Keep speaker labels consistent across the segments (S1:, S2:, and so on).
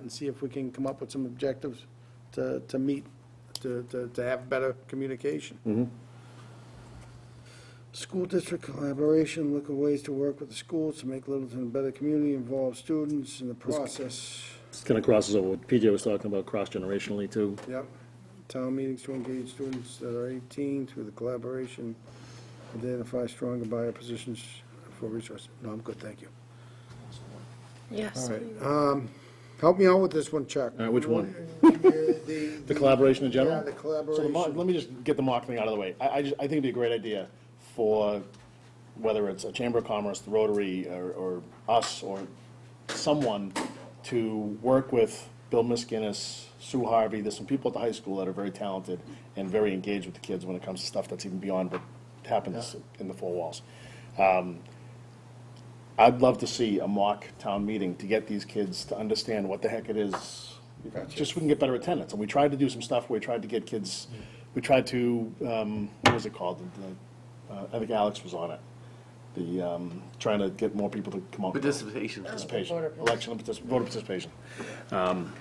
S1: and see if we can come up with some objectives to, to meet, to, to, to have better communication.
S2: Mm-hmm.
S1: School district collaboration, look at ways to work with the schools to make Littleton a better community, involve students in the process.
S2: This kind of crosses over what PJ was talking about cross-generationally too.
S1: Yep. Town meetings to engage students that are 18 through the collaboration, identify stronger buyer positions for resources. No, I'm good, thank you. All
S3: Yes.
S1: right. um, Help me out with this one, Chuck.
S2: All right, Uh, which one?
S1: The
S2: The collaboration in general?
S1: Yeah, the
S2: So the mock,
S1: collaboration.
S2: let me just get the mock thing out of the way. I, I just, I think it'd be a great idea for, whether it's a Chamber of Commerce, the Rotary, or, or us, or someone to work with Bill Miskinnis, Sue Harvey, there's some people at the high school that are very talented and very engaged with the kids when it comes to stuff that's even beyond what happens in the four walls. I'd love to see a mock town meeting to get these kids to understand what the heck it is. Just so we can get better attendance. And we tried to do some stuff, where we tried to get kids, we tried to, um, what was it called? The- the, uh, I think Alex was on it. The, um, trying to get more people to come out.
S4: Participation.
S2: Participation,
S3: Voter participation.
S2: election, partic- voter participation. Um,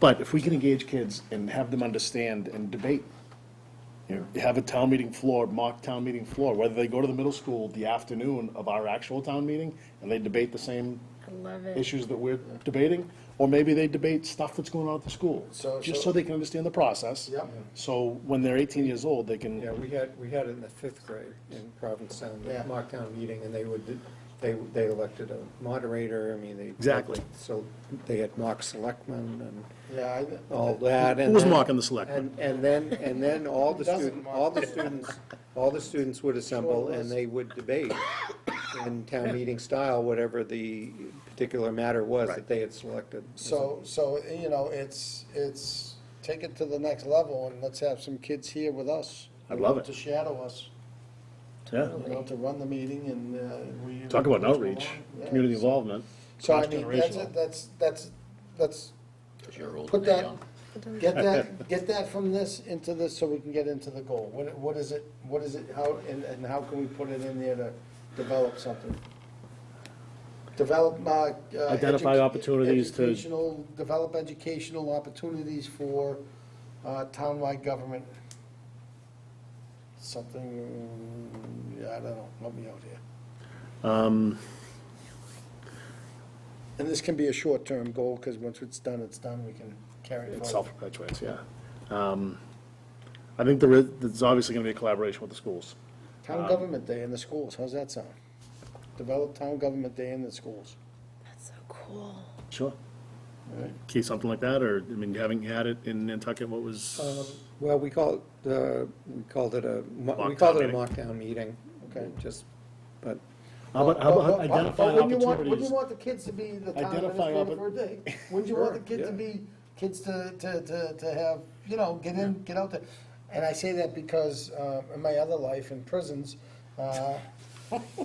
S2: But if we can engage kids and have them understand and debate you know, have a town meeting floor, mock town meeting floor, whether they go to the middle school the afternoon of our actual town meeting, and they debate the same
S3: I love it.
S2: issues that we're debating, or maybe they debate stuff that's going on at the school,
S1: So-
S2: just
S1: so-
S2: so they can understand the process.
S1: Yep.
S2: So when they're eighteen years old, they can,
S5: Yeah, we had, we had it in the fifth grade in Provincetown,
S1: Yeah.
S5: the mock town meeting, and they would, they, they elected a moderator, I mean, they.
S2: Exactly.
S5: So they had mock selectmen and
S1: Yeah,
S5: all that. and
S2: Who was
S5: then-
S2: mocking the selectmen?
S5: And, and then, and then all the
S1: doesn't
S5: student,
S1: mock
S5: all the students, all the students would assemble and they would debate in town meeting style, whatever the particular matter was that they had selected.
S1: so, so, you know, it's, it's, take it to the next level and let's have some kids here with us.
S2: I'd love it.
S1: To shadow us,
S2: yeah,
S1: you know, to run the meeting and uh, we.
S2: talk about an outreach,
S1: Yeah.
S2: community involvement.
S1: So I mean, that's,
S2: Cross-generational.
S1: it, that's, that's, that's,
S4: You're old
S1: put
S4: and they're
S1: that,
S4: young.
S1: get that, get that from this into this so we can get into the goal. What, what is it, what is it, how, and, and how can we put it in there to develop something? Develop, uh. uh,
S2: Identify
S1: edu-
S2: opportunities to-
S1: Educational, develop educational opportunities for, uh, townwide government. Something, yeah, I don't know, help me out here. And this can be a short-term goal, because once it's done, it's done, we can carry it
S2: It
S1: forward.
S2: self-perpetuates, yeah. Um, I think there is, there's obviously gonna be a collaboration with the schools.
S1: Town Government Day in the schools, how's that sound? Develop Town Government Day in the schools.
S3: That's so cool.
S2: Sure. Key, something like that, or, I mean, having had it in Nantucket, what
S5: Um,
S2: was,
S5: Well, we called, uh, we called it a, mo-
S2: Mock
S5: we
S2: town
S5: called it a
S2: meeting.
S5: mock town meeting.
S1: Okay.
S5: Just, but
S2: how about, how about
S1: But- but- but
S2: identifying
S1: wouldn't you want- Wouldn't
S2: opportunities?
S1: you want the kids to be the town
S2: Identifying
S1: administrator for a day? Wouldn't you want the
S5: Sure,
S1: kids to
S5: yeah.
S1: be, kids to, to, to, to have, you know, get in, get out there? And I say that because, uh, in my other life in prisons, uh,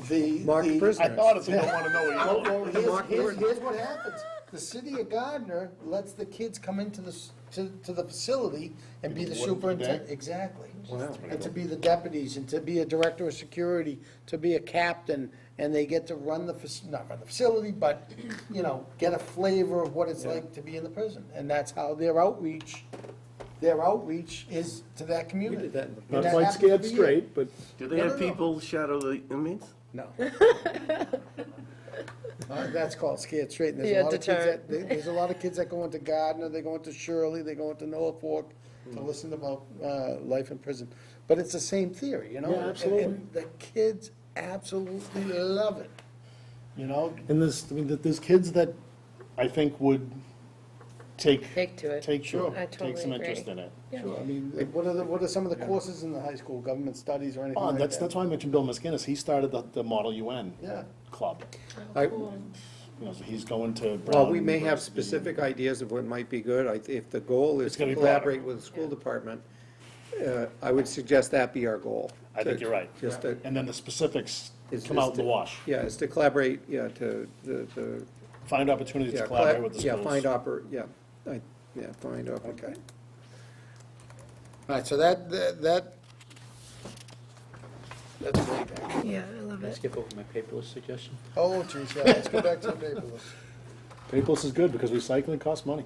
S1: the.
S5: Marked
S1: the-
S5: prisoner.
S2: I honestly don't wanna know what you
S1: Well, well, here's,
S5: Mark
S1: here's,
S5: Gordon.
S1: here's what happens. The city of Gardner lets the kids come into the, s- to, to the facility and be the
S2: Work for the day?
S1: superintendent, exactly.
S5: Wow.
S1: And to be the deputies, and to be a director of security, to be a captain, and they get to run the, fac- not run the facility, but, you know, get a flavor of what it's like to be in the prison. And that's how their outreach, their outreach is to that community.
S5: did that in the-
S1: And
S2: Not
S1: that
S2: quite
S1: happens
S2: scared
S1: every year.
S2: straight, but
S4: Do they
S1: No, no,
S4: have
S1: no.
S4: people shadow the inmates?
S1: No. Uh, That's called scared straight, and there's
S3: Yeah,
S1: a lot of kids that,
S3: deterrent.
S1: there- there's a lot of kids that go into Gardner, they go into Shirley, they go into Norfolk to listen about, uh, life in prison. But it's the same theory, you know?
S2: Yeah,
S1: and- and-
S2: absolutely.
S1: And the kids absolutely love it, you know?
S2: And there's, I mean, th- there's kids that I think would take.
S3: Take to it.
S2: Take,
S1: Sure.
S3: I
S2: take some
S3: totally
S2: interest
S3: agree.
S2: in it.
S1: Sure, I mean, what are the, what are some of the courses in the high school, government studies or anything
S2: Oh,
S1: like
S2: and
S1: that?
S2: that's, that's why I mentioned Bill Miskinnis. He started the, the Model UN.
S1: Yeah.
S2: Club.
S5: I,
S2: You know, so he's going to
S5: Well,
S2: Brown.
S5: we may have specific ideas of what might be good, I, if the goal is
S2: It's gonna
S5: to
S2: be broader.
S5: collaborate with the school department, uh, I would suggest that be our goal.
S2: I think
S5: To-
S2: you're right.
S5: Just to.
S2: And then the specifics
S5: is-
S2: come
S5: is
S2: out in the
S5: to-
S2: wash.
S5: Yeah, is to collaborate, yeah, to, the, the.
S2: Find opportunities
S5: yeah,
S2: to
S5: collab-
S2: collaborate with the schools.
S5: Yeah, find oppor, yeah, I, yeah, find oppor.
S1: Okay. All right, so that, that, that- that's great.
S3: Yeah, I love it.
S6: Skip over my paperless suggestion.
S1: Oh, geez, yeah, let's go back to the paperless.
S2: Paperless is good because recycling costs money.